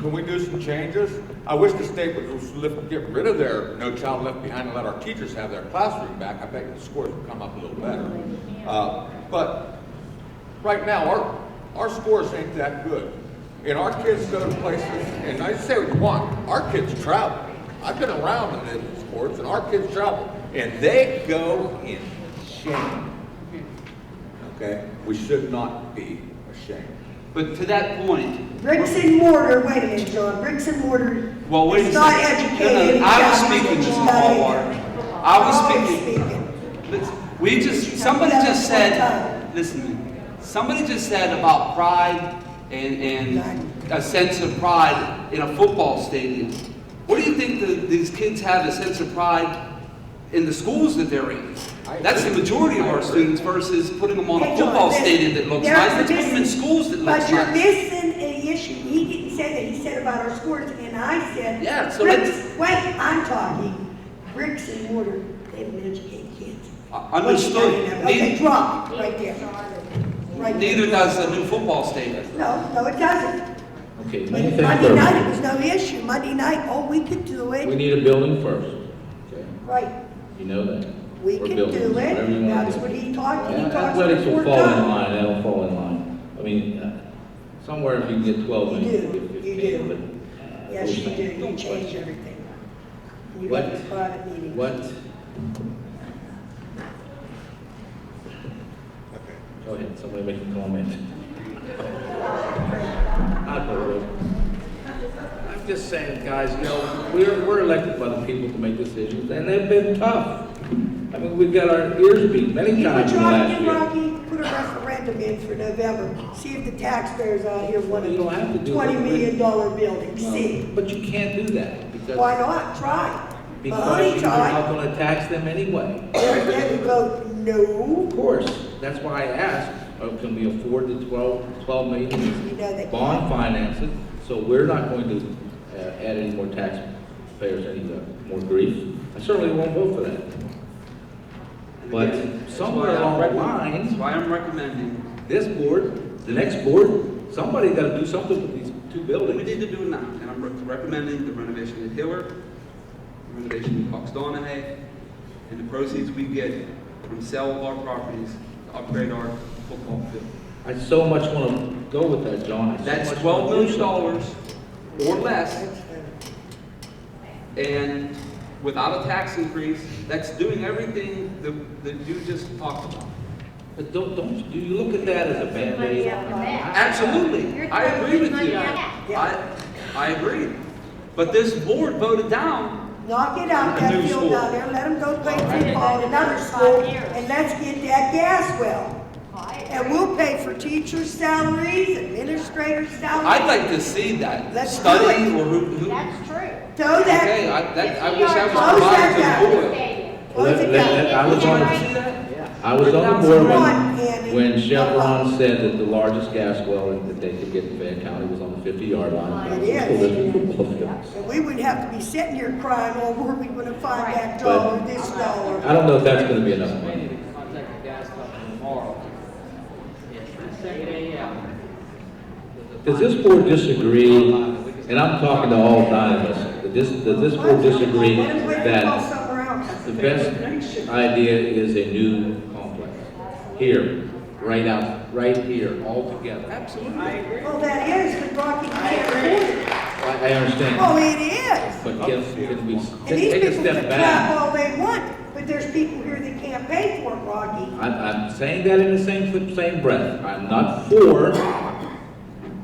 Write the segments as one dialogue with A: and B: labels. A: Can we do some changes? I wish the state would just lift, get rid of their No Child Left Behind and let our teachers have their classroom back. I bet the scores would come up a little better. Uh, but right now, our, our scores ain't that good. And our kids go to places, and I say what you want, our kids travel. I've been around in the sports, and our kids travel, and they go in shame. Okay? We should not be ashamed.
B: But to that point,
C: Bricks and mortar, wait a minute, John, bricks and mortar.
B: well, wait a
C: It's not
B: second. No, no,
C: educated.
B: I was speaking, Mrs. Ballwater. I was
C: Always
B: speaking. Let's- We just, somebody just said, listen, somebody just said about pride and, and a sense of pride in a football stadium. What do you think that these kids have a sense of pride in the schools that they're in?
A: I
B: That's the
A: agree.
B: majority of
A: I
B: our
A: agree.
B: students versus putting them on a
C: Hey, John,
B: football
C: listen,
B: stadium that looks
C: you're
B: nice, let's put them in
C: missing-
B: schools that looks
C: But you're
B: nice.
C: missing an issue. He didn't say that. He said about our scores, and I said.
B: Yeah, so
C: bricks-
B: let's-
C: Wait, I'm talking bricks and mortar, they don't educate kids.
B: I- Understood.
C: Okay,
B: Neith-
C: drop it right there. Right there.
B: Neither does a new football stadium.
C: No, no, it doesn't.
D: Okay, let me think
C: Monday night, it was
D: first.
C: no issue. Monday night, oh, we could do
D: We
C: it.
D: need a building first, okay?
C: Right.
D: You know that.
C: We
D: Or
C: can
D: buildings,
C: do
D: whatever you
C: it,
D: wanna
C: that's
D: do.
C: what he talked, he
D: Yeah,
C: talks.
D: Athletics will
C: before
D: fall in
C: time.
D: line, that'll fall in line. I mean, uh, somewhere if you can get twelve,
C: You
D: maybe
C: do,
D: fifteen,
C: you do.
D: but. uh,
C: Yes, you
D: those
C: do,
D: things
C: you
D: don't
C: change
D: quite-
C: everything. You
D: What-
C: have a private meeting.
D: What, go ahead, somebody make a comment. I vote. I'm just saying, guys, you know, we're, we're elected by the people to make decisions, and they've been tough. I mean, we've got our ears beat many
C: You know what
D: times in
C: you
D: the
C: ought to
D: last
C: do,
D: year.
C: Rocky? Put a referendum in for November, see if the taxpayers out here want
D: You don't have to
C: a
D: do
C: twenty
D: it.
C: million dollar building,
D: Well,
C: see?
D: But you can't do that because.
C: Why not, try.
D: Because
C: Mahoney
D: you're not
C: tried,
D: gonna tax them anyway.
C: they're, they vote no,
D: Of course, that's why I asked, uh, can we afford the 12, 12
C: you
D: million?
C: know they
D: Bond finance it, so we're not going to uh, add any more taxpayers, any uh, more grief. I certainly won't vote for that. But somewhere along the line-
B: That's why I'm recommending,
D: This board, the next board, somebody gotta do something with these two
B: we need
D: buildings.
B: to do it now, and I'm re- recommending the renovation at Hiller, the renovation at Fox Donahay, and the proceeds we get from sale of our properties to upgrade our football field.
D: I so much wanna go with that, John. I so
B: That's
D: much
B: twelve
D: wanna do
B: million dollars
D: something.
B: or less, and without a tax increase, that's doing everything that, that you just talked about.
D: But don't, don't, do you look at that as a
E: Money
D: band-aid?
E: out the back.
B: Absolutely,
E: You're
B: I agree with
E: throwing
B: you.
E: money out.
B: I, I agree. But this board voted down,
C: Knock it out,
B: A
C: that
B: new
C: field
B: school.
C: down there, let them go play
D: All right.
C: football at another school,
E: Five years.
C: and let's get that gas well. And we'll pay for teachers' salaries, administrators'
B: I'd
C: salaries,
B: like to see that
C: Let's do
B: study
C: it.
B: or who, who.
E: That's true.
C: so
B: Okay,
C: that,
B: I, that, I
E: If we
B: wish I
E: are
C: close
B: was
C: that
B: provided to the board.
C: close it down.
D: I was on the- I was on the board when, when Chevron said that the largest gas well that they could get in Fayette County was on the fifty yard line.
C: It is.
D: is.
C: And we wouldn't have to be sitting here crying, oh, where are we gonna find that
D: But-
C: dollar, this dollar?
D: I don't know if that's gonna be enough money.
F: Contact the gas company tomorrow. Yes, seven AM.
D: Does this board disagree, and I'm talking to all nine of us, does this, does this board disagree
C: Let them wait to call
D: that
C: somewhere else.
D: the best idea is a new complex? Here, right out, right here, all together.
B: Absolutely.
C: Well, that is, but Rocky can't afford it.
D: I, I understand.
C: Oh, it is.
D: But can, can we
C: And these
D: take take a
C: people can
D: step
C: clap
D: back?
C: all they want, but there's people here that can't pay for it, Rocky.
D: I'm, I'm saying that in the same, flip- same breath. I'm not for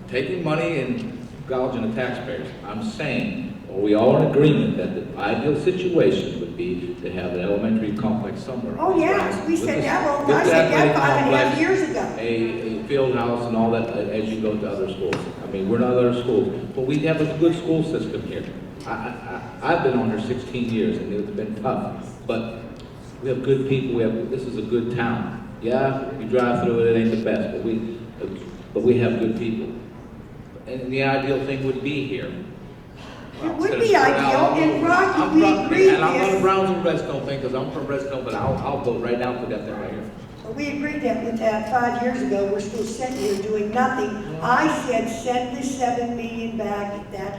D: taking money and gouging the taxpayers. I'm saying, are we all in agreement that the ideal situation would be to have an elementary complex somewhere?
C: Oh, yes, we
D: With
C: said
D: this-
C: that, well,
D: with
C: I said that
D: athletic
C: five and a half
D: complex,
C: years ago.
D: A, a field house and all that uh, as you go to other schools. I mean, we're not other schools, but we have a good school system here. I, I, I- I've been on here sixteen years and it's been tough, but we have good people, we have, this is a good town. Yeah, you drive through it, it ain't the best, but we, uh, but we have good people. And the ideal thing would be here.
C: It would be ideal, and Rocky,
D: I'm
C: we
D: from-
C: agreed
D: And I'm not a
C: this.
D: Browns and Redstone thing, because I'm from Redstone, but I'll, I'll vote right now for that thing right here.
C: But we agreed that with that five years ago, we're still sitting here doing nothing. I said, send the seven million back at that